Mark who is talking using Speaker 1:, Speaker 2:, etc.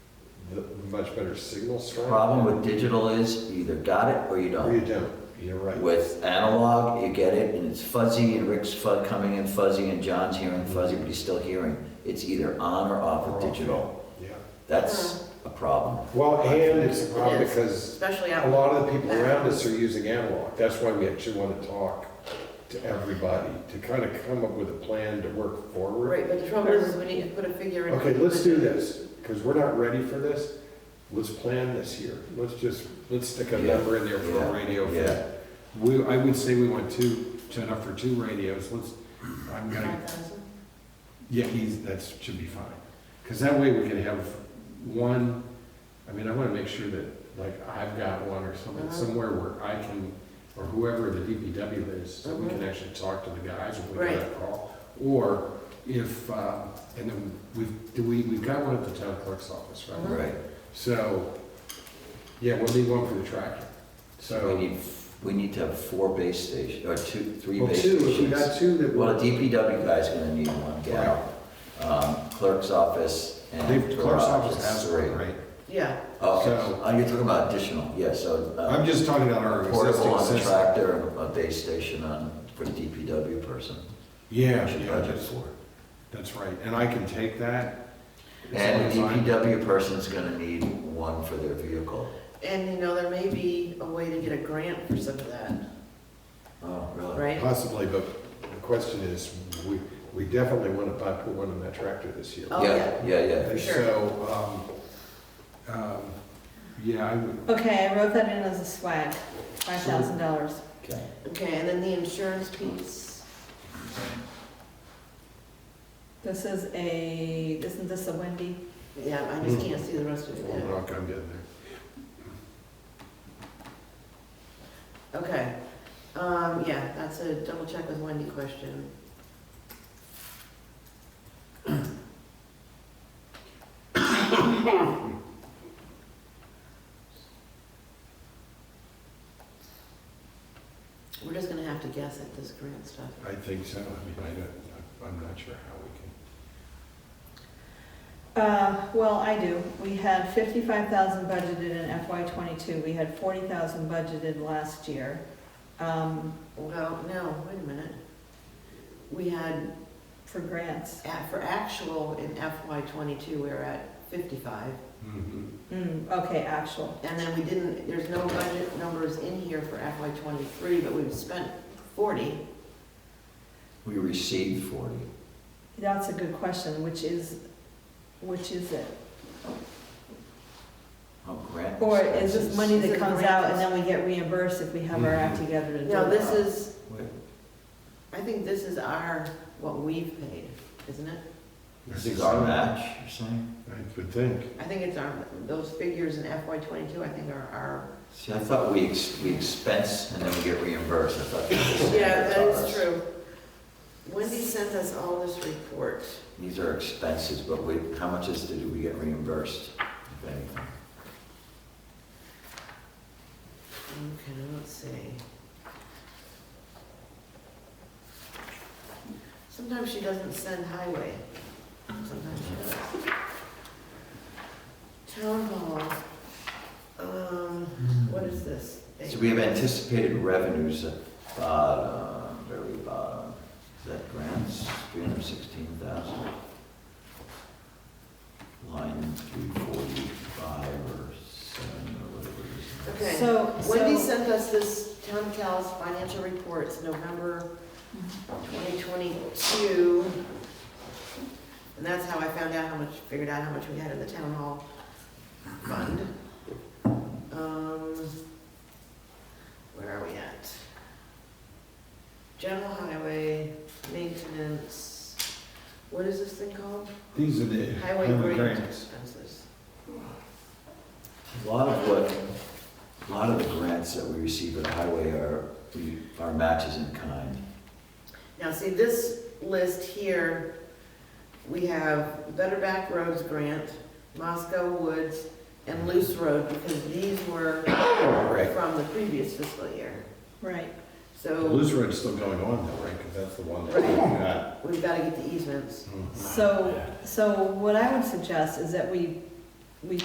Speaker 1: much better signal strength.
Speaker 2: Problem with digital is you either got it or you
Speaker 1: Or you
Speaker 2: don't.
Speaker 1: don't, you're right.
Speaker 2: With analog, you get it and it's fuzzy and Rick's fu- coming in fuzzy and John's hearing fuzzy, but he's still hearing. It's either on or off with digital.
Speaker 1: Yeah.
Speaker 2: That's a problem.
Speaker 1: Well, and it's
Speaker 3: It
Speaker 1: odd
Speaker 3: is.
Speaker 1: because
Speaker 3: especially
Speaker 1: a
Speaker 3: out.
Speaker 1: lot of the people around us are using analog. That's why we actually want to talk to everybody, to kind of come up with a plan to work forward.
Speaker 3: Right, but the trouble is, is we need to put a figure in.
Speaker 1: Okay, let's do this, because we're not ready for this. Let's plan this here. Let's just, let's stick a
Speaker 2: Yeah,
Speaker 1: number in there for
Speaker 2: yeah,
Speaker 1: a radio. for-
Speaker 2: yeah.
Speaker 1: We, I would say we want two, enough for two radios. Let's, I'm gonna
Speaker 3: 5,000?
Speaker 1: Yeah, he's, that should be fine. Because that way we can have one, I mean, I want to make sure that, like, I've got one or something,
Speaker 3: Uh-huh.
Speaker 1: somewhere where I can, or whoever the DPW is, so we can actually talk to the guys when we get a call. Or if, uh, and then we've, do we, we've got one at the town clerk's office, right?
Speaker 2: Right.
Speaker 1: So, yeah, we'll need one for the tractor.
Speaker 2: We
Speaker 1: So,
Speaker 2: need, we need to have four base stations, or two, three
Speaker 1: well,
Speaker 2: base
Speaker 1: two, if we got
Speaker 2: stations.
Speaker 1: two that
Speaker 2: Well,
Speaker 1: were,
Speaker 2: the DPW guy's gonna need one gal, um, clerk's office
Speaker 1: the
Speaker 2: and
Speaker 1: clerk's
Speaker 2: garage
Speaker 1: office
Speaker 2: is
Speaker 1: has
Speaker 2: three.
Speaker 1: one, right?
Speaker 3: Yeah,
Speaker 2: Oh,
Speaker 1: So-
Speaker 2: oh, you're talking about additional, yeah, so. uh,
Speaker 1: I'm just talking about our
Speaker 2: Portable
Speaker 1: existing
Speaker 2: on the
Speaker 1: system.
Speaker 2: tractor and a base station on, for the DPW person.
Speaker 1: Yeah,
Speaker 2: Should
Speaker 1: yeah,
Speaker 2: budget
Speaker 1: that's-
Speaker 2: for.
Speaker 1: That's right, and I can take that.
Speaker 2: And
Speaker 1: It's
Speaker 2: the
Speaker 1: only fine.
Speaker 2: DPW person's gonna need one for their vehicle.
Speaker 3: and you know, there may be a way to get a grant for some of that,
Speaker 2: Oh, really?
Speaker 3: right?
Speaker 1: Possibly, but the question is, we, we definitely want to buy, put one in that tractor this year.
Speaker 3: Oh,
Speaker 2: Yeah, yeah, yeah.
Speaker 1: And
Speaker 3: sure.
Speaker 1: so, um, um, yeah, I would,
Speaker 4: Okay, I wrote that in as a swag, five thousand dollars.
Speaker 2: Okay.
Speaker 3: Okay, and then the insurance piece,
Speaker 4: This is a, isn't this a Wendy?
Speaker 3: yeah, I
Speaker 1: Hmm.
Speaker 3: just can't see the rest of
Speaker 1: well,
Speaker 3: it.
Speaker 1: Rock, I'm getting there.
Speaker 3: Okay, um, yeah, that's a double check with Wendy question. We're just gonna have to guess at this grant stuff.
Speaker 1: I think so, I mean, I don't, I'm not sure how we
Speaker 4: Uh, well, I do. We had fifty-five thousand budgeted in FY twenty-two, we had forty thousand budgeted last year. Um,
Speaker 3: Well, no, wait a minute. We had,
Speaker 4: for grants.
Speaker 3: at- for actual in FY twenty-two, we were at fifty-five.
Speaker 1: can. Mm-hmm.
Speaker 4: Mm, okay, actual.
Speaker 3: And then we didn't, there's no budget numbers in here for FY twenty-three, but we've spent forty.
Speaker 2: We received forty.
Speaker 4: That's a good question, which is, which is it?
Speaker 2: Oh, grant.
Speaker 4: Or is
Speaker 2: expenses.
Speaker 4: this money
Speaker 3: Is
Speaker 4: that
Speaker 3: it
Speaker 4: comes out and
Speaker 3: grants? Mm-hmm.
Speaker 4: then we get reimbursed if we have our act together to do it?
Speaker 3: No, this is,
Speaker 2: Wait,
Speaker 3: I think this is our, what we've paid, isn't it?
Speaker 2: This is our match, you're saying?
Speaker 1: I would think.
Speaker 3: I think it's our, those figures in FY twenty-two, I think are our.
Speaker 2: See, I thought we ex, we expense and then we get reimbursed, I thought. that's what they taught us.
Speaker 3: true. Wendy sent us all this report.
Speaker 2: These are expenses, but we, how much is, did we get reimbursed, if anything?
Speaker 3: Okay, let's see. Sometimes she doesn't send highway, sometimes she does. Town hall, um, what is this?
Speaker 2: So we have anticipated revenues at bottom, very bottom. Is that grants, three hundred sixteen thousand? Line three forty-five or seven or whatever it
Speaker 3: Okay.
Speaker 4: So,
Speaker 3: Wendy
Speaker 4: so,
Speaker 3: sent us this town cal's financial reports, November twenty twenty-two. And that's how I found out how much, figured out how much we had in the town hall fund. Um, where are we at? General highway, maintenance, what is this thing called?
Speaker 1: These are the.
Speaker 3: Highway grant expenses.
Speaker 2: is. A lot of what, a lot of the grants that we receive at Highway are, we- are matches in kind.
Speaker 3: Now, see, this list here, we have Better Back Roads Grant, Moscow Woods, and Loose Road, because these were
Speaker 1: Right.
Speaker 3: from the previous fiscal year.
Speaker 4: right,
Speaker 3: So
Speaker 1: Loose Road's still going on though, right? Because that's the one that
Speaker 3: Right.
Speaker 1: we got.
Speaker 3: we've got to get the easements.
Speaker 1: Mhm.
Speaker 4: so, so what I would suggest is that we